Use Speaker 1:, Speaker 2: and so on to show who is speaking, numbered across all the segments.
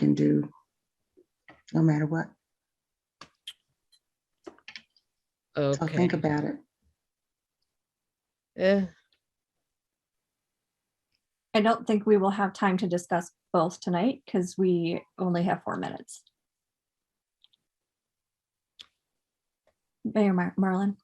Speaker 1: can do, no matter what. So
Speaker 2: Okay.
Speaker 1: think about it.
Speaker 2: Eh,
Speaker 3: I don't think we will have time to discuss both tonight because we only have four minutes. Mayor Mar- Marlin,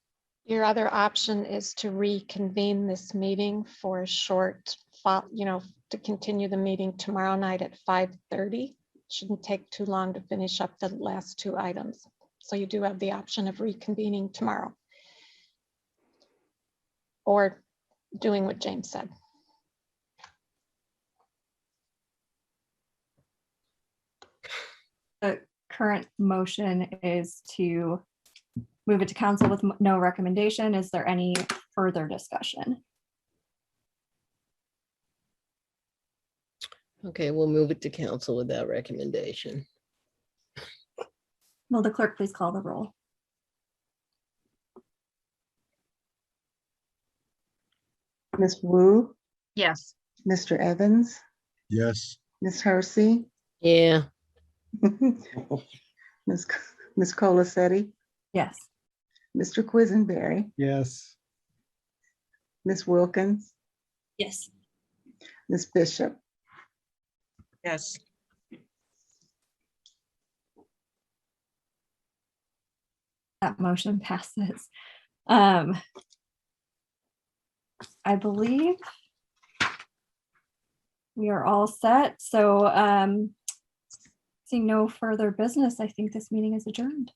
Speaker 4: Your other option is to reconvene this meeting for a short, fo- you know, to continue the meeting tomorrow night at 5:30. Shouldn't take too long to finish up the last two items. So you do have the option of reconvening tomorrow. Or doing what James said.
Speaker 3: current motion is to move it to council with m- no recommendation. Is there any further discussion?
Speaker 2: okay, we'll move it to council with that recommendation.
Speaker 3: Will the clerk please call the roll?
Speaker 1: Ms. Wu,
Speaker 5: Yes.
Speaker 1: Mr. Evans,
Speaker 6: Yes.
Speaker 1: Ms. Hersey,
Speaker 2: Yeah,
Speaker 1: Ms. C- Ms. Colacetti,
Speaker 3: Yes.
Speaker 1: Mr. Quisenberry,
Speaker 6: Yes.
Speaker 1: Ms. Wilkins,
Speaker 3: Yes.
Speaker 1: Ms. Bishop.
Speaker 5: Yes.
Speaker 3: That motion passes. Um, I believe we are all set. So um, seeing no further business, I think this meeting is adjourned.